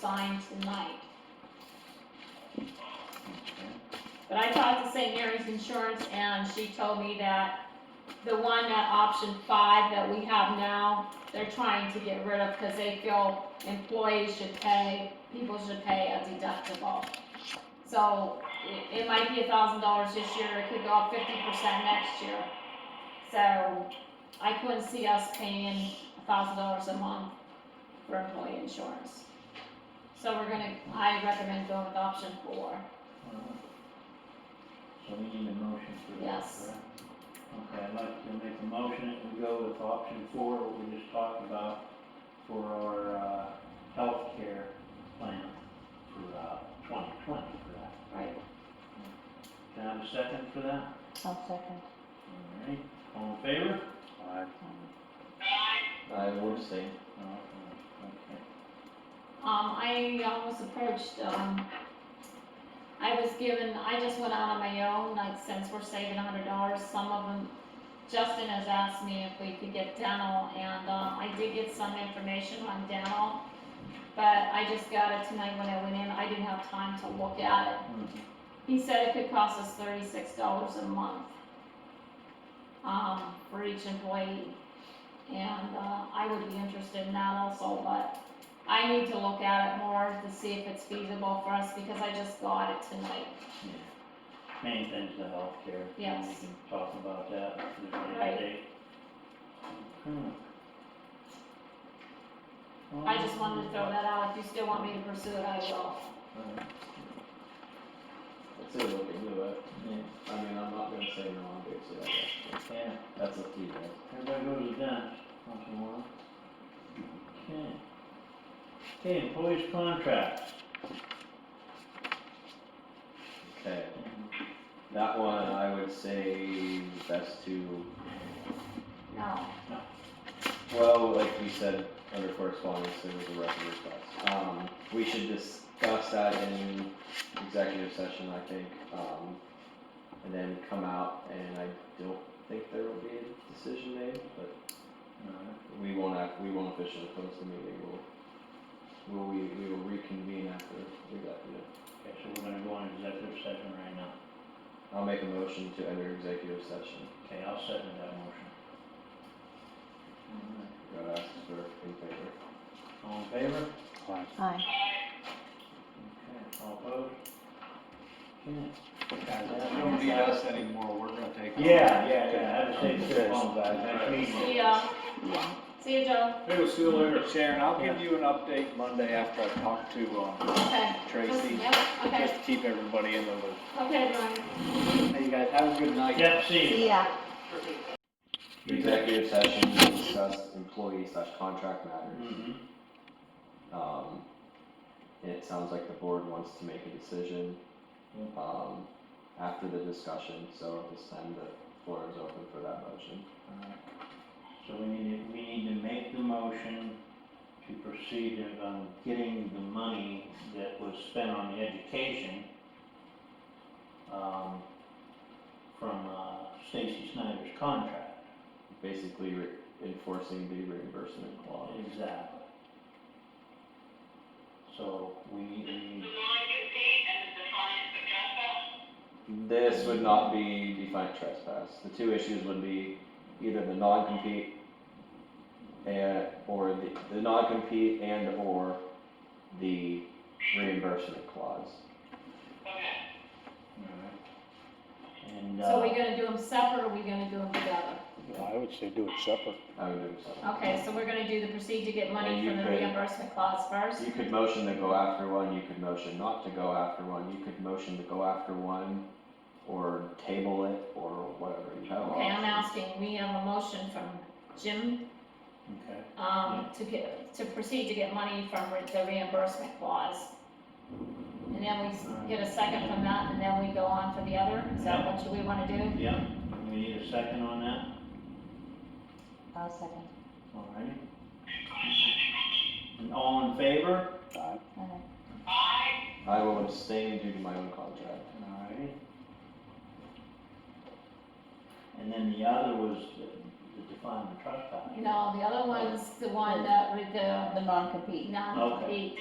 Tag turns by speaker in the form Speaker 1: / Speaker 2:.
Speaker 1: signed tonight. But I talked to St. Mary's Insurance and she told me that the one, that option five that we have now, they're trying to get rid of because they feel employees should pay, people should pay a deductible. So it, it might be a thousand dollars this year, it could go up fifty percent next year. So I couldn't see us paying a thousand dollars a month for employee insurance. So we're gonna, I recommend going with option four.
Speaker 2: So we need a motion for that,
Speaker 1: Yes.
Speaker 2: correct? Okay, I'd like to make a motion that we go with option four, what we just talked about, for our, uh, healthcare plan for, uh, twenty twenty for that.
Speaker 1: Right.
Speaker 2: Can I have a second for that?
Speaker 3: I'll second.
Speaker 2: All right, all in favor? Aye.
Speaker 4: I would say,
Speaker 2: Okay.
Speaker 1: Um, I almost approached, um, I was given, I just went out on my own, like, since we're saving a hundred dollars, some of them, Justin has asked me if we could get dental, and, um, I did get some information on dental, but I just got it tonight when I went in, I didn't have time to look at it.
Speaker 2: Mhm.
Speaker 1: He said it could cost us thirty-six dollars a month, um, for each employee. And, uh, I would be interested in that also, but I need to look at it more to see if it's feasible for us, because I just got it tonight.
Speaker 2: Main thing's the healthcare. and We
Speaker 1: Yes.
Speaker 2: can talk about that at a later
Speaker 1: Right. Hmm.
Speaker 2: date. Okay.
Speaker 1: I just wanted to throw that out, if you still want me to pursue it, I will.
Speaker 4: let's see what we can do,
Speaker 2: Uh,
Speaker 4: but, I mean, I'm not gonna say no, I'm gonna say that,
Speaker 2: Yeah,
Speaker 4: that's up to you guys.
Speaker 2: everybody goes to dance once in a while. Okay. Okay, employees' contracts.
Speaker 4: Okay,
Speaker 2: Uh,
Speaker 4: that one, I would say best to,
Speaker 1: No,
Speaker 4: well, like you said, under correspondence, there was a record request. Um, we should discuss that in executive session, I think, um, and then come out, and I don't think there will be a decision made, but
Speaker 2: Alright,
Speaker 4: We won't act, we won't officially close the meeting, we'll, we'll, we, we will reconvene after we got, you know.
Speaker 2: Okay, so we're gonna go on executive session right now.
Speaker 4: I'll make a motion to enter executive session,
Speaker 2: Okay, I'll second that motion.
Speaker 4: gotta ask for in favor.
Speaker 2: All in favor?
Speaker 3: Aye.
Speaker 2: Okay, all opposed? Okay.
Speaker 5: It won't be us anymore, we're gonna take. over.
Speaker 2: Yeah, yeah, yeah, I have to say, it's on that, next meeting.
Speaker 1: see ya, see ya, Joe,
Speaker 5: Hey, we'll see you later. Sharon, I'll give you an update Monday after I talk to, um,
Speaker 1: okay.
Speaker 5: Tracy,
Speaker 1: Yep,
Speaker 5: just
Speaker 1: okay,
Speaker 5: to keep everybody in the loop.
Speaker 1: okay, Brian.
Speaker 5: Hey, you guys, have a good night.
Speaker 2: Yep, see you.
Speaker 3: See ya.
Speaker 4: Executive session, to discuss employee slash contract matters,
Speaker 2: Mhm.
Speaker 4: um, and it sounds like the board wants to make a decision,
Speaker 2: Yeah.
Speaker 4: um, after the discussion, so at this time, the floor is open for that motion.
Speaker 2: Alright. So we need to, we need to make the motion to proceed in, um, getting the money that was spent on the education, um, from, uh, Stacy Snyder's contract.
Speaker 4: Basically re- enforcing the reimbursement clause.
Speaker 2: Exactly. So we need, we need,
Speaker 4: This would not be defiant trespass. The two issues would be either the non-compete and, or the, the non-compete and or the reimbursement clause.
Speaker 2: alright. And,
Speaker 1: So are we
Speaker 2: uh,
Speaker 1: gonna do them separate, or are we gonna do them together?
Speaker 6: I would say do it separate.
Speaker 4: I would do so.
Speaker 1: Okay, so we're gonna do the proceed to get money
Speaker 4: And you
Speaker 1: from the
Speaker 4: could-
Speaker 1: reimbursement clause first?
Speaker 4: You could motion to go after one, you could motion not to go after one, you could motion to go after one or table it or whatever, you have
Speaker 1: Okay, I'm
Speaker 4: options.
Speaker 1: asking, we have a motion from Jim,
Speaker 2: uh, okay,
Speaker 1: um, to get, to proceed to get money from re- the reimbursement clause. And then we s- get a second from that, and then we go on for the other, is that what you- we wanna do?
Speaker 2: yeah, we need a second on that,
Speaker 3: I'll second.
Speaker 2: alright? And all in favor?
Speaker 6: Aye.
Speaker 3: Aye.
Speaker 4: I will abstain due to my own contract.
Speaker 2: Alright. And then the other was the- the define the trespass.
Speaker 1: You know, the other one's the one that, with the,
Speaker 3: The non-compete.
Speaker 1: not, the,